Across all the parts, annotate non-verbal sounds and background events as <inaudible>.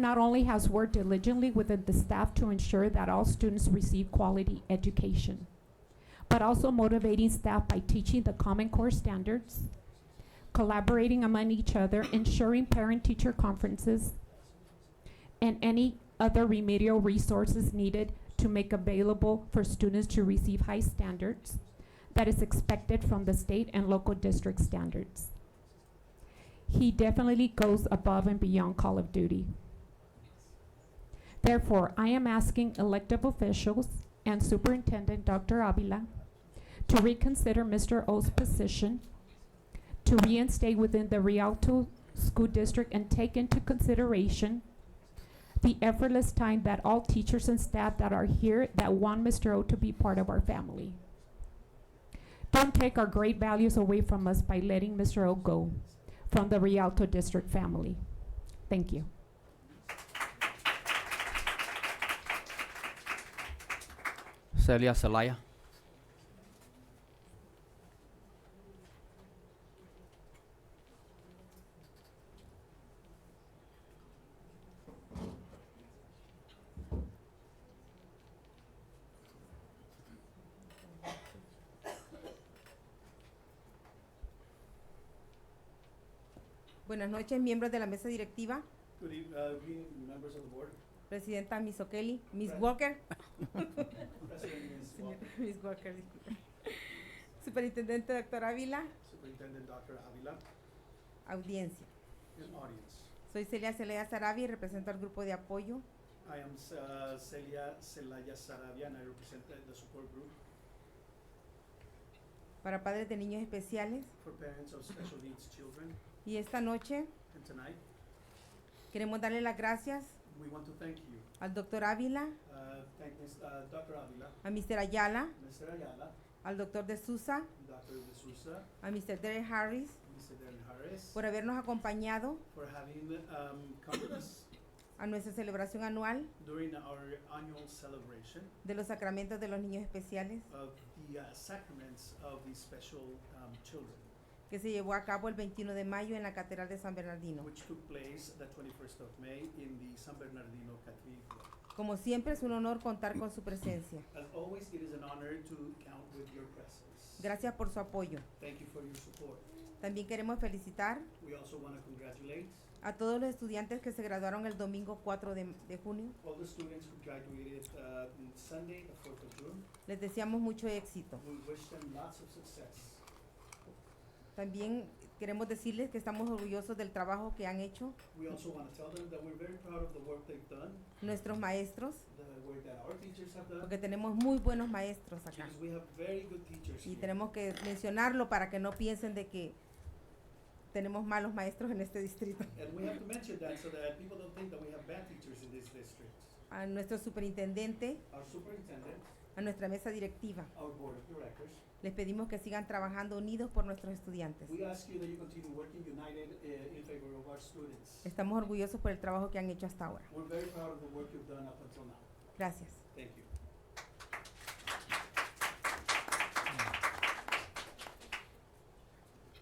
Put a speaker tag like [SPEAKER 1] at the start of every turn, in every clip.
[SPEAKER 1] not only has worked diligently within the staff to ensure that all students receive quality education, but also motivating staff by teaching the Common Core standards, collaborating among each other, ensuring parent-teacher conferences, and any other remedial resources needed to make available for students to receive high standards that is expected from the state and local district standards. He definitely goes above and beyond call of duty. Therefore, I am asking elective officials and Superintendent Dr. Avila to reconsider Mr. O's position, to reinstate within the Rialto School District and take into consideration the effortless time that all teachers and staff that are here that want Mr. O to be part of our family. Don't take our great values away from us by letting Mr. O go from the Rialto District family. Thank you.
[SPEAKER 2] Celia Zelaya.
[SPEAKER 3] Buenas noches, miembros de la mesa directiva,
[SPEAKER 4] Good evening, uh, good evening, members of the board.
[SPEAKER 3] presidenta Miss O'Kelly, Miss
[SPEAKER 4] Gracias.
[SPEAKER 3] Walker, <laughs>
[SPEAKER 4] President is
[SPEAKER 3] señor-
[SPEAKER 4] welcome.
[SPEAKER 3] Miss Walker, disculpe. superintendente doctor Ávila,
[SPEAKER 4] Superintendent Dr. Avila,
[SPEAKER 3] audiencia.
[SPEAKER 4] and audience.
[SPEAKER 3] Soy Celia Celeda Sarabia y represento al grupo de apoyo
[SPEAKER 4] I am uh, Celia Celaya Sarabia and I represent the- the support group
[SPEAKER 3] para padres de niños especiales
[SPEAKER 4] for parents of special needs children.
[SPEAKER 3] y esta noche
[SPEAKER 4] And tonight,
[SPEAKER 3] queremos darle las gracias
[SPEAKER 4] we want to thank you.
[SPEAKER 3] al doctor Ávila,
[SPEAKER 4] Uh, Thank Ms. uh, Dr. Avila,
[SPEAKER 3] a Mr. Ayala,
[SPEAKER 4] Mr. Ayala,
[SPEAKER 3] al doctor De Sousa,
[SPEAKER 4] Dr. De Sousa,
[SPEAKER 3] a Mr. Derek Harris
[SPEAKER 4] Mr. Darren Harris
[SPEAKER 3] por habernos acompañado
[SPEAKER 4] for having um, come with us
[SPEAKER 3] a nuestra celebración anual
[SPEAKER 4] during our annual celebration
[SPEAKER 3] de los sacramentos de los niños especiales
[SPEAKER 4] of the uh, sacraments of the special um, children.
[SPEAKER 3] que se llevó a cabo el 21 de mayo en la Catedral de San Bernardino.
[SPEAKER 4] which took place the 21st of May in the San Bernardino Cathedral.
[SPEAKER 3] Como siempre es un honor contar con su presencia.
[SPEAKER 4] As always, it is an honor to count with your presence.
[SPEAKER 3] Gracias por su apoyo.
[SPEAKER 4] Thank you for your support.
[SPEAKER 3] También queremos felicitar
[SPEAKER 4] We also want to congratulate
[SPEAKER 3] a todos los estudiantes que se graduaron el domingo 4 de, de junio.
[SPEAKER 4] all the students who graduated uh, on Sunday, the 4th of June.
[SPEAKER 3] Les deseamos mucho éxito.
[SPEAKER 4] We wish them lots of success.
[SPEAKER 3] También queremos decirles que estamos orgullosos del trabajo que han hecho
[SPEAKER 4] We also want to tell them that we're very proud of the work they've done,
[SPEAKER 3] nuestros maestros,
[SPEAKER 4] the work that our teachers have done,
[SPEAKER 3] porque tenemos muy buenos maestros acá.
[SPEAKER 4] because we have very good teachers
[SPEAKER 3] Y
[SPEAKER 4] here.
[SPEAKER 3] tenemos que mencionarlo para que no piensen de que tenemos malos maestros en este distrito.
[SPEAKER 4] And we have to mention that so that people don't think that we have bad teachers in this district.
[SPEAKER 3] A nuestro superintendente,
[SPEAKER 4] Our superintendent,
[SPEAKER 3] a nuestra mesa directiva.
[SPEAKER 4] our board of directors,
[SPEAKER 3] Les pedimos que sigan trabajando unidos por nuestros estudiantes.
[SPEAKER 4] We ask you that you continue working united uh, in favor of our students.
[SPEAKER 3] Estamos orgullosos por el trabajo que han hecho hasta ahora.
[SPEAKER 4] We're very proud of the work you've done up until now.
[SPEAKER 3] Gracias.
[SPEAKER 4] Thank you.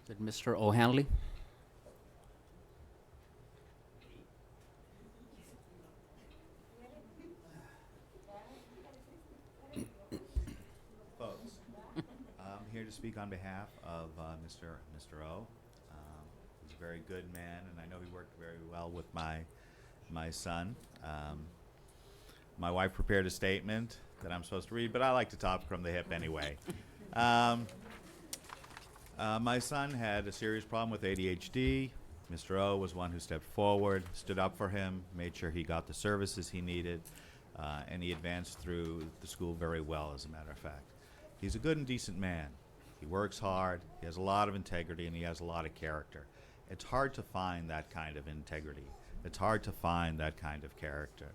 [SPEAKER 2] Is it Mr. O'Hanley?
[SPEAKER 5] folks. Uh, I'm here to speak on behalf of uh, Mr. Mr. O. Um, He's a very good man, and I know he worked very well with my, my son. Um, My wife prepared a statement that I'm supposed to read, but I like to talk from the hip anyway. Um, uh, my son had a serious problem with ADHD. Mr. O was one who stepped forward, stood up for him, made sure he got the services he needed, uh, and he advanced through the school very well, as a matter of fact. He's a good and decent man. He works hard, he has a lot of integrity, and he has a lot of character. It's hard to find that kind of integrity, it's hard to find that kind of character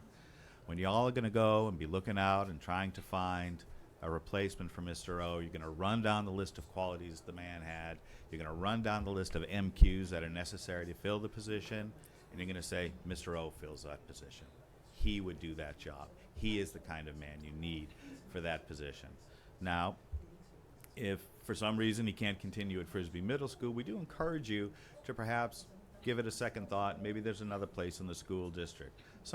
[SPEAKER 5] when y'all are going to go and be looking out and trying to find a replacement for Mr. O, you're going to run down the list of qualities the man had. You're going to run down the list of MQs that are necessary to fill the position, and you're going to say, Mr. O fills that position. He would do that job. He is the kind of man you need for that position. Now, if for some reason he can't continue at Frisbee Middle School, we do encourage you to perhaps give it a second thought. Maybe there's another place in the school district. Some